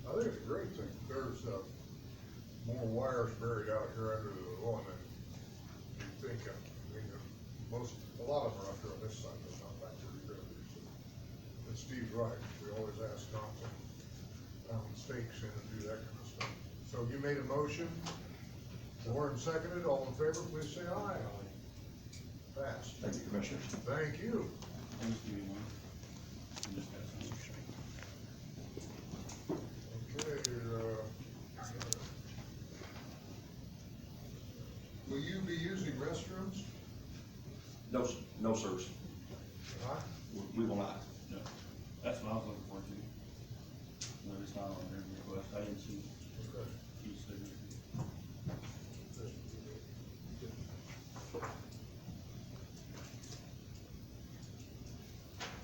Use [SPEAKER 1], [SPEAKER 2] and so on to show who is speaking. [SPEAKER 1] think it's a great thing, there's, uh, more wires buried out here under the lawn than you think, uh, I mean, uh, most, a lot of them are out here on this side, but not back there either. And Steve's right, we always ask not to, um, stakes in and do that kind of stuff. So you made a motion, Warren seconded, all in favor, please say aye. Passed.
[SPEAKER 2] Thank you, Commissioners.
[SPEAKER 1] Thank you.
[SPEAKER 3] Just give me one. I just got some straight.
[SPEAKER 1] Okay, uh, will you be using restrooms?
[SPEAKER 2] No, s- no, sirs,
[SPEAKER 1] Huh?
[SPEAKER 2] We- we will not.
[SPEAKER 3] No, That's what I was looking for too. But it's not on their request, I didn't see,
[SPEAKER 1] Okay.
[SPEAKER 3] see signature.